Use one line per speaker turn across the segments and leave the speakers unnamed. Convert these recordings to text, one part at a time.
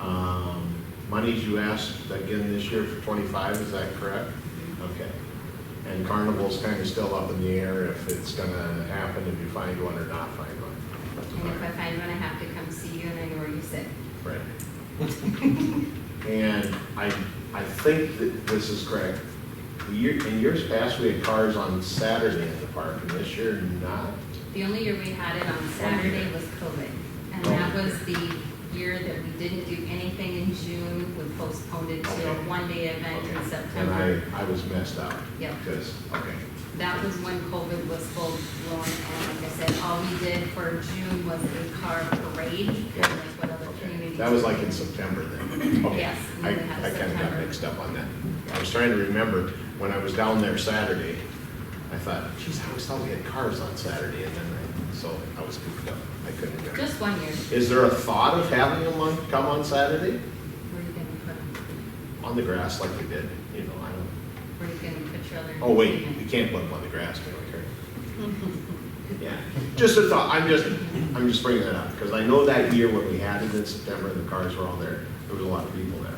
Um, monies you asked again this year for twenty-five, is that correct? Okay. And Carnival's kind of still up in the air if it's gonna happen, if you find one or not find
And if I
one.
find one, I have to come see you and I know where you sit.
Right. And I, I think that this is correct. The year- in years past, we had cars on Saturday at the park, and this year, not.
The only year we had it on Saturday was COVID.
Oh.
And that was the year that we didn't do anything in June, we postponed it to a
Okay.
one-day event in
And
September.
I, I was messed up.
Yep.
Because, okay,
That was when COVID was full blown, and like I said, all we did for June was a car parade, kind of like what other
okay.
communities.
That was like
do.
in September then. Okay.
Yes,
I,
we had
I kind of got
September.
mixed up on that. I was trying to remember, when I was down there Saturday, I thought, geez, I always thought we had cars on Saturday, and then I, so I was goofed up. I couldn't remember.
Just one year,
Is there a thought of having them on, come on Saturday?
where are you gonna put 'em?
On the grass like we did, you know, I don't,
Where are you gonna put your other?
oh wait, we
entertainment?
can't put them on the grass, can we, Karen? Yeah, just a thought, I'm just, I'm just bringing that up, because I know that year when we had it in September, and the cars were all there, there was a lot of people there.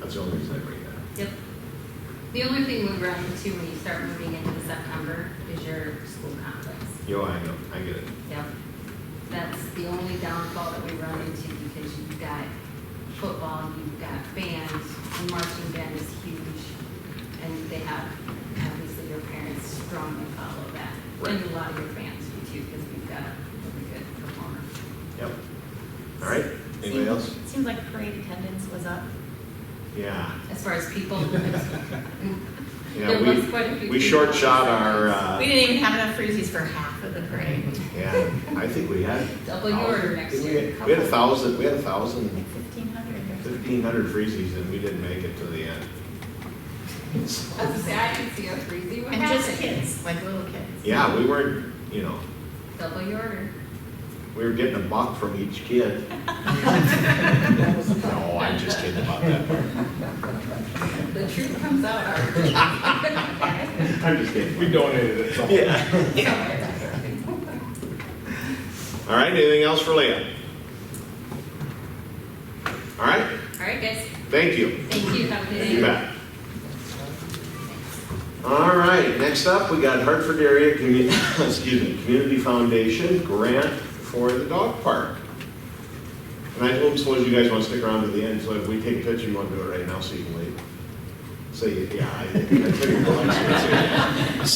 That's the only reason I bring that up.
Yep. The only thing we run into when you start moving into September is your school conflicts.
Yo, I know, I get it.
Yep. That's the only downfall that we run into because you've got football, you've got bands, and marching band is huge. And they have, obviously, your parents strongly follow that. And
Right.
a lot of your fans do too, because we've got a really good performer.
Yep. All right, anybody
Seems-
else?
Seems like parade attendance was up.
Yeah,
As far as people.
yeah,
There was quite a
we,
few
we short
people.
shot our,
We
uh,
didn't even have enough freezies for half of the parade.
yeah, I think we had.
Double your order next
Didn't we-
year.
We had a thousand, we had a thousand,
Like fifteen hundred or something.
fifteen hundred freezies, and we didn't make it to the end.
I was gonna say, I can see how crazy what
And just
happened.
kids, like little kids.
Yeah, we weren't, you know,
Double your order.
we were getting a buck from each kid. No, I'm just kidding about that part.
The truth comes out, Art.
I'm just kidding.
We donated it, so.
Yeah.
Somewhere.
All right, anything else for Leah? All right,
All right, guys.
thank you.
Thank you. Have a good
You
day.
bet. All right, next up, we got Hartford Area, Commu- excuse me, Community Foundation grant for the dog park. And I hope suppose you guys want to stick around to the end, so if we take a picture, you want to do it right now, so you can leave. So, you- yeah, I think, I figured you'll like to see it.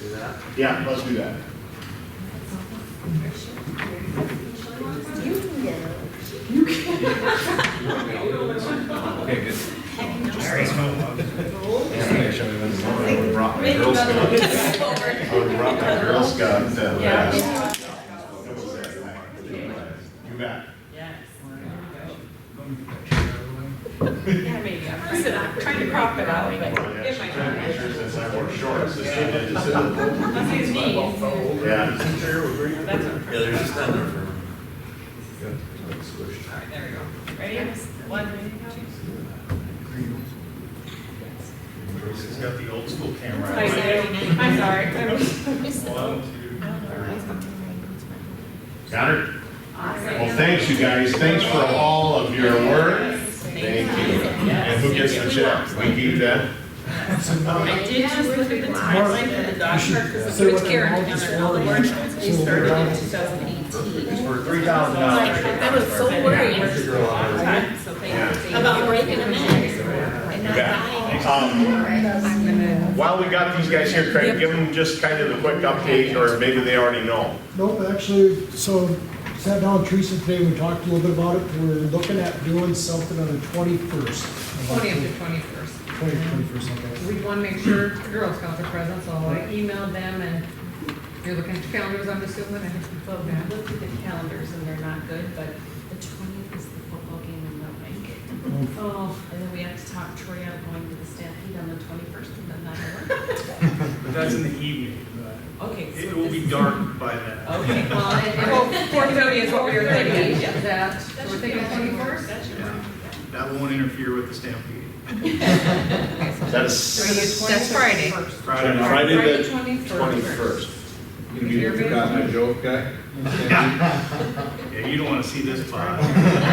So,
Do that?
yeah, let's do that.
Okay, good.
Heck
Brought my
no.
Girl Scout.
Over.
I brought my Girl Scout. uh,
Yeah.
vest. You bet.
Yeah, maybe. I'm trying to crop it out, but
Yeah,
it
she
might
took
not.
pictures since I wore shorts, so she did just sit in the pool.
Let's use these.
Yeah.
That's what.
Yeah, there's just that there for.
Alright, there we go. Ready? One, two.
Bruce has got the old school camera.
I'm sorry. I'm sorry. I was-
One,
I
two.
don't know why it's not doing my boots, but-
Got her? Well, thanks you guys, thanks for all of your work. Thank you. And who gets the check? We keep that?
I did just look at the timeline for the dog park, because
Say
it was
what the
Karen,
amount is
and all the
for.
workshops, we started in two thousand eighteen.
It's for three
Oh,
thousand dollars.
I was so worried. So thank you. About breaking them in. And not dying.
Um, While we got these guys here, Craig, give them just kind of the quick update, or maybe they already know.
Nope, actually, so sat down with Teresa today, we talked a little bit about it, we're looking at doing something on the twenty-first.
Only up to twenty-first.
Twenty-first, okay.
We want to make sure the Girl Scouts are present, so I
uh,
emailed them and you're looking at calendars, I'm assuming, and
But when I looked at the calendars and they're not good, but the twentieth is the football game and they'll make it.
Mm.
Oh, and then we have to talk Troy out going to the stampede on the twenty-first and then that'll work.
But that's in the evening.
Okay. so
It will
this-
be dark by then.
Okay, well, and- and-
four thirty is what we were thinking, is that, so
That
we're
should be
thinking
okay.
twenty-first?
That should be
Yeah.
okay.
That won't interfere with the stampede.
That is
That's Friday.
Friday.
Friday the
twenty-first.
twenty-first.
You forgot my
joke, guy?
Yeah, you don't want to see this part.